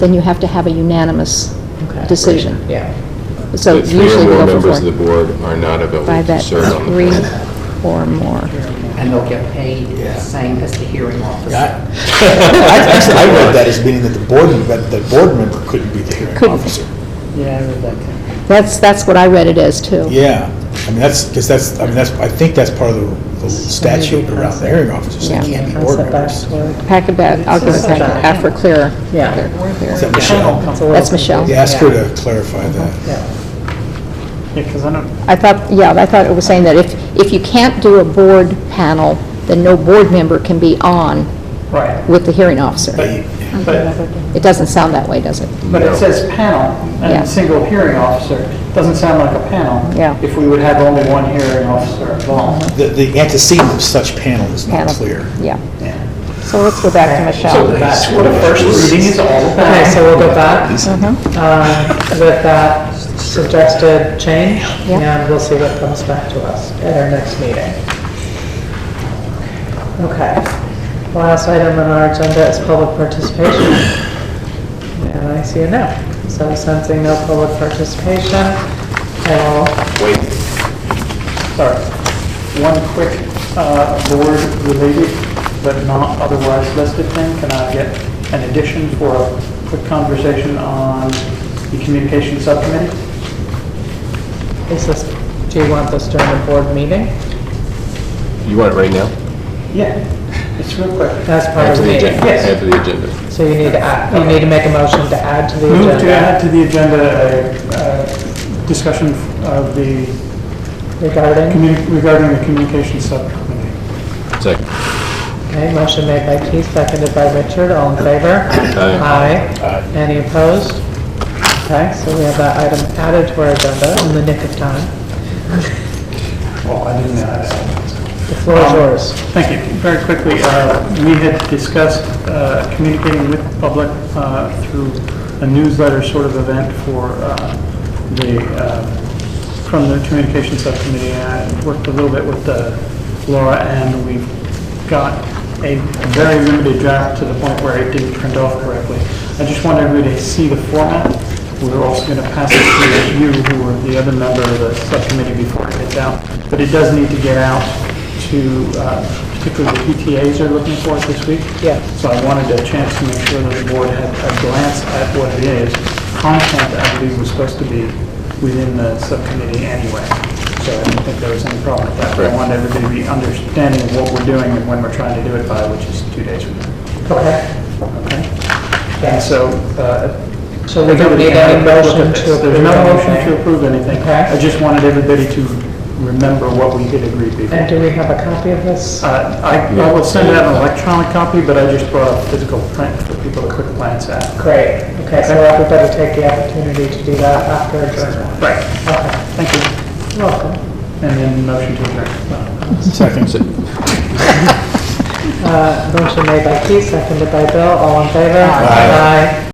then you have to have a unanimous Okay. decision. Yeah. So The three usually or we more go for members of the four. board are not available By to that, serve on the three planning. or more. And they'll get paid the same as the hearing officer. I actually, I read that as meaning that the board, that the board member couldn't be the hearing Couldn't. officer. Yeah, I read that. That's, that's what I read it as, too. Yeah, I mean, that's, because that's, I mean, that's, I think that's part of the- the statute around the hearing officers, they Yeah. can't be board members. Packet bag, I'll give it back after clear. Yeah. Clear, clear. Is that Michelle? Uh-huh. That's Michelle. Yeah, ask her to clarify that. Yeah, because I don't, I thought, yeah, I thought it was saying that if, if you can't do a board panel, then no board member can be on right, with the hearing officer. But but, It doesn't sound that way, does it? but it says panel Yeah. and single hearing officer, doesn't sound like a panel. Yeah. Uh-huh. If we would have only one hearing officer involved. The, the antecedent of such panel is not Panel. clear. Yeah. Yeah. So let's go back to Michelle. So that's what a first reading is all about. Okay, so we'll go back Uh-huh. uh, with that suggested change, Yeah. and we'll see what comes back to us at our next meeting. Okay. Last item on our agenda is public participation. And I see a no. So sensing no public participation, I will Sorry, one quick uh, board-related but not otherwise listed thing. Can I get an addition for a quick conversation on the communication subcommittee? Is this, do you want this during the board meeting? You want it right now? Yeah, it's real quick. That's part of After the the meeting. agenda? Yes. After the agenda. So you need to add, you need to make a motion to add to the agenda. Move to add to the agenda a uh, discussion of the, Regarding, communi- regarding the communication subcommittee. Second. okay, motion made by Keith, seconded by Richard, all in favor? Aye. Aye. Any opposed? Okay, so we have that item added to our agenda in the nick of time. Well, Oh, I didn't add it. The floor Um, is yours. Thank you. Very quickly, uh, we had discussed uh, communicating with the public uh, through a newsletter sort of event for uh, the, uh, from the communication subcommittee. I worked a little bit with uh, Laura, and we got a very limited draft to the point where it didn't print off correctly. I just wanted everybody to see the format. We We're also going to pass it to you, who were the other member of the subcommittee before it gets out. But it does need to get out to, uh, particularly the PTAs are looking for it this week. Yeah. So I wanted a chance to make sure that the board had a glance at what it is. Content, I believe, was supposed to be within the subcommittee anyway. So I didn't think there was any problem with that. But I Correct. wanted everybody to be understanding of what we're doing and when we're trying to do it by, which is two days from now. Okay, Okay? And so, uh, so we don't need any motion to approve there's no motion to anything. approve anything. Okay. I just wanted everybody to remember what we did agree And before. do we have a copy of this? Uh, I I will send out an electronic copy, but I just brought a physical print for people to quick glance at. Great, okay, so everybody take the opportunity to do that after adjournment. Right. Okay, Thank you. you're welcome. And then motion to adjourn. Second. Uh, Motion made by Keith, seconded by Bill, all in favor? Aye.